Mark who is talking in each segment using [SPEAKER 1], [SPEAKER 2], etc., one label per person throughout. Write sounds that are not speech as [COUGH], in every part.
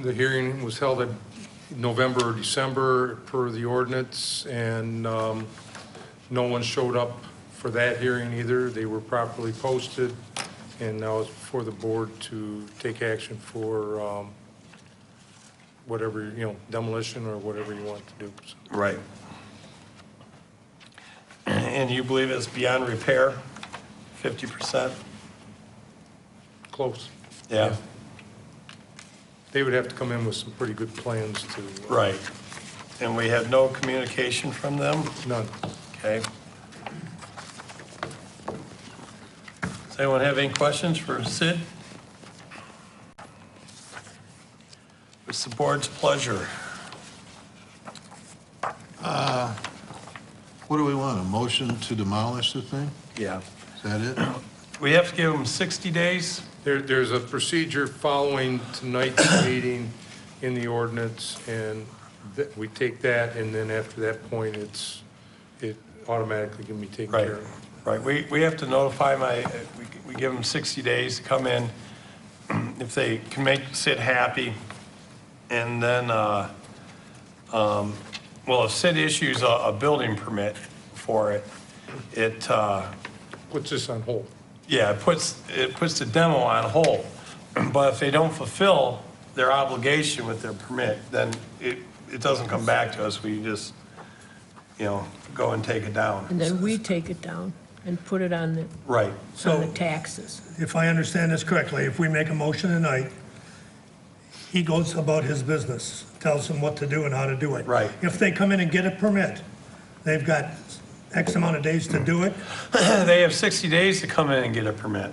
[SPEAKER 1] The hearing was held in November or December per the ordinance, and um, no one showed up for that hearing either. They were properly posted, and now it's for the board to take action for um, whatever, you know, demolition or whatever you want to do. So,
[SPEAKER 2] Right.
[SPEAKER 3] And you believe it's beyond repair, fifty percent?
[SPEAKER 1] Close.
[SPEAKER 3] Yeah,
[SPEAKER 1] They would have to come in with some pretty good plans to.
[SPEAKER 3] right. And we had no communication from them,
[SPEAKER 1] None.
[SPEAKER 3] okay? Does anyone have any questions for Sid? It's the board's pleasure.
[SPEAKER 4] What do we want, a motion to demolish the thing?
[SPEAKER 2] Yeah.
[SPEAKER 4] Is that it?
[SPEAKER 3] We have to give them sixty days?
[SPEAKER 1] There, there's a procedure following tonight's [COUGHS] meeting in the ordinance, and that, we take that, and then after that point, it's, it automatically can be taken
[SPEAKER 3] Right,
[SPEAKER 1] care of.
[SPEAKER 3] right. We, we have to notify my, we, we give them 60 days to come in. [CLEARS THROAT] If they can make Sid happy, and then, uh, um, well, if Sid issues a, a building permit for it, it, uh,
[SPEAKER 1] Puts this on hold.
[SPEAKER 3] yeah, it puts, it puts the demo on hold. [CLEARS THROAT] But if they don't fulfill their obligation with their permit, then it, it doesn't come back to us. We just, you know, go and take it down.
[SPEAKER 5] And then we take it down and put it on the,
[SPEAKER 3] Right.
[SPEAKER 5] on the
[SPEAKER 6] So
[SPEAKER 5] taxes.
[SPEAKER 6] if I understand this correctly, if we make a motion tonight, he goes about his business, tells them what to do and how to do it.
[SPEAKER 3] Right.
[SPEAKER 6] If they come in and get a permit, they've got X amount of days to do it.
[SPEAKER 3] [CLEARS THROAT] they have 60 days to come in and get a permit.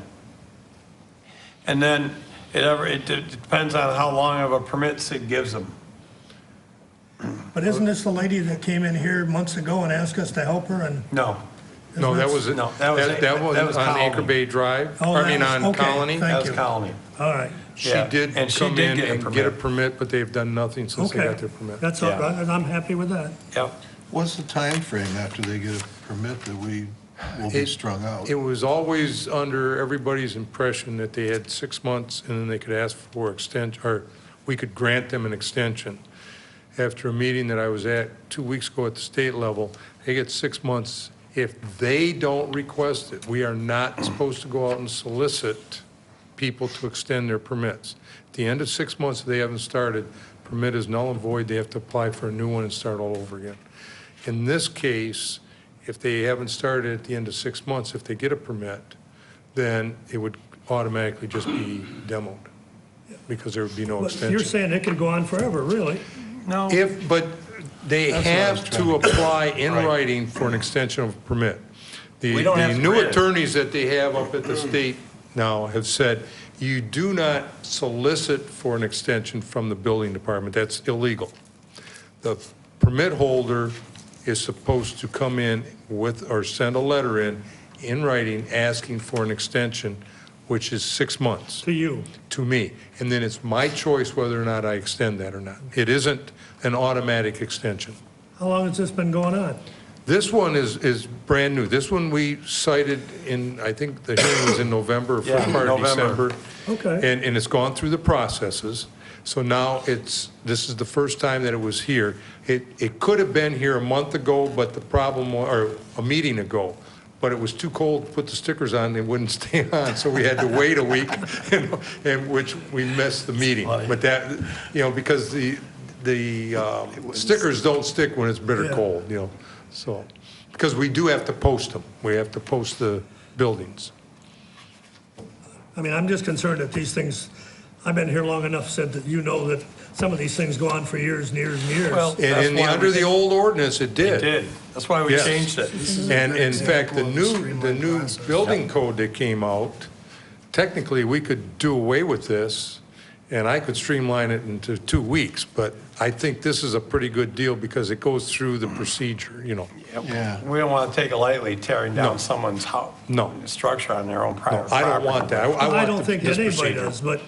[SPEAKER 3] And then it ever, it de- depends on how long of a permit Sid gives them.
[SPEAKER 6] But isn't this the lady that came in here months ago and asked us to help her and?
[SPEAKER 3] No,
[SPEAKER 1] No, that was,
[SPEAKER 3] No, that was-
[SPEAKER 1] that, that
[SPEAKER 3] that was
[SPEAKER 1] was on Anchor
[SPEAKER 3] Colony.
[SPEAKER 1] Bay Drive,
[SPEAKER 6] Oh,
[SPEAKER 1] I
[SPEAKER 6] that
[SPEAKER 1] mean,
[SPEAKER 6] was-
[SPEAKER 1] on
[SPEAKER 6] okay,
[SPEAKER 1] Colony.
[SPEAKER 6] thank
[SPEAKER 3] that was
[SPEAKER 6] you.
[SPEAKER 3] Colony.
[SPEAKER 6] All right,
[SPEAKER 1] She
[SPEAKER 3] yeah.
[SPEAKER 1] did
[SPEAKER 3] And she
[SPEAKER 1] come
[SPEAKER 3] did
[SPEAKER 1] in
[SPEAKER 3] get a
[SPEAKER 1] and get a
[SPEAKER 3] permit.
[SPEAKER 1] permit, but they've done nothing since they
[SPEAKER 6] okay.
[SPEAKER 1] got their permit.
[SPEAKER 6] That's all
[SPEAKER 3] Yeah.
[SPEAKER 6] right, and I'm happy with that.
[SPEAKER 3] Yep.
[SPEAKER 4] What's the time frame after they get a permit that we will be
[SPEAKER 1] It-
[SPEAKER 4] strung out?
[SPEAKER 1] It was always under everybody's impression that they had six months and then they could ask for extension, or we could grant them an extension. After a meeting that I was at two weeks ago at the state level, they get six months. If they don't request it, we are not supposed to go out and solicit people to extend their permits. At the end of six months, if they haven't started, permit is null and void, they have to apply for a new one and start all over again. In this case, if they haven't started at the end of six months, if they get a permit, then it would automatically just be demoed, because there would be no
[SPEAKER 6] But you're
[SPEAKER 1] extension.
[SPEAKER 6] saying it could go on forever, really?
[SPEAKER 3] No,
[SPEAKER 1] If, but they
[SPEAKER 4] That's what I was
[SPEAKER 1] have to apply in writing for an extension of permit. The
[SPEAKER 3] We don't have
[SPEAKER 1] the
[SPEAKER 3] to
[SPEAKER 1] new
[SPEAKER 3] grant it.
[SPEAKER 1] attorneys that they have up at the state now have said, you do not solicit for an extension from the building department, that's illegal. The permit holder is supposed to come in with, or send a letter in, in writing, asking for an extension, which is six months
[SPEAKER 6] To you?
[SPEAKER 1] to me. And then it's my choice whether or not I extend that or not. It isn't an automatic extension.
[SPEAKER 6] How long has this been going on?
[SPEAKER 1] This one is, is brand new. This one we cited in, I think the hearing was in November, first
[SPEAKER 3] Yeah,
[SPEAKER 1] part of
[SPEAKER 3] November.
[SPEAKER 1] December.
[SPEAKER 6] Okay.
[SPEAKER 1] And, and it's gone through the processes. So now it's, this is the first time that it was here. It, it could have been here a month ago, but the problem, wa- or a meeting ago, but it was too cold to put the stickers on, they wouldn't [LAUGHS] stay on, so we had to wait a week, [LAUGHS] and, and which we missed the meeting. But that, you know, because the, the um, stickers don't stick when it's bitter
[SPEAKER 6] Yeah.
[SPEAKER 1] cold, you know, so. Because we do have to post them. We have to post the buildings.
[SPEAKER 6] I mean, I'm just concerned that these things, I've been here long enough, said that you know that some of these things go on for years and years and
[SPEAKER 3] Well-
[SPEAKER 6] years.
[SPEAKER 1] And
[SPEAKER 3] That's
[SPEAKER 1] in the,
[SPEAKER 3] why we
[SPEAKER 1] under the
[SPEAKER 3] did-
[SPEAKER 1] old ordinance, it did.
[SPEAKER 3] it did. That's why we
[SPEAKER 1] Yes.
[SPEAKER 3] changed it.
[SPEAKER 1] And in fact, the new, the new building code that came out, technically, we could do away with this, and I could streamline it into two weeks, but I think this is a pretty good deal because it goes through the procedure, you know.
[SPEAKER 4] Yeah.
[SPEAKER 3] We don't want to take it lightly, tearing down someone's house.
[SPEAKER 1] No.
[SPEAKER 3] Structure on their own
[SPEAKER 1] No,
[SPEAKER 3] private property.
[SPEAKER 1] I don't want that. I- I
[SPEAKER 6] I
[SPEAKER 1] want
[SPEAKER 6] don't
[SPEAKER 1] the-
[SPEAKER 6] think
[SPEAKER 1] this
[SPEAKER 6] that anybody
[SPEAKER 1] procedure.
[SPEAKER 6] does, but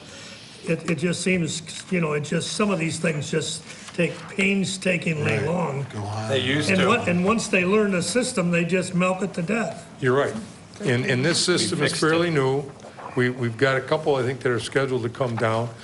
[SPEAKER 6] it, it just seems, you know, it just, some of these things just take painstakingly long.
[SPEAKER 4] Go on.
[SPEAKER 3] They used
[SPEAKER 6] And what,
[SPEAKER 3] to.
[SPEAKER 6] and once they learn the system, they just milk it to death.
[SPEAKER 1] You're right. And, and this system is
[SPEAKER 3] fixed it.
[SPEAKER 1] fairly new. We, we've got a couple, I think, that are scheduled to come down.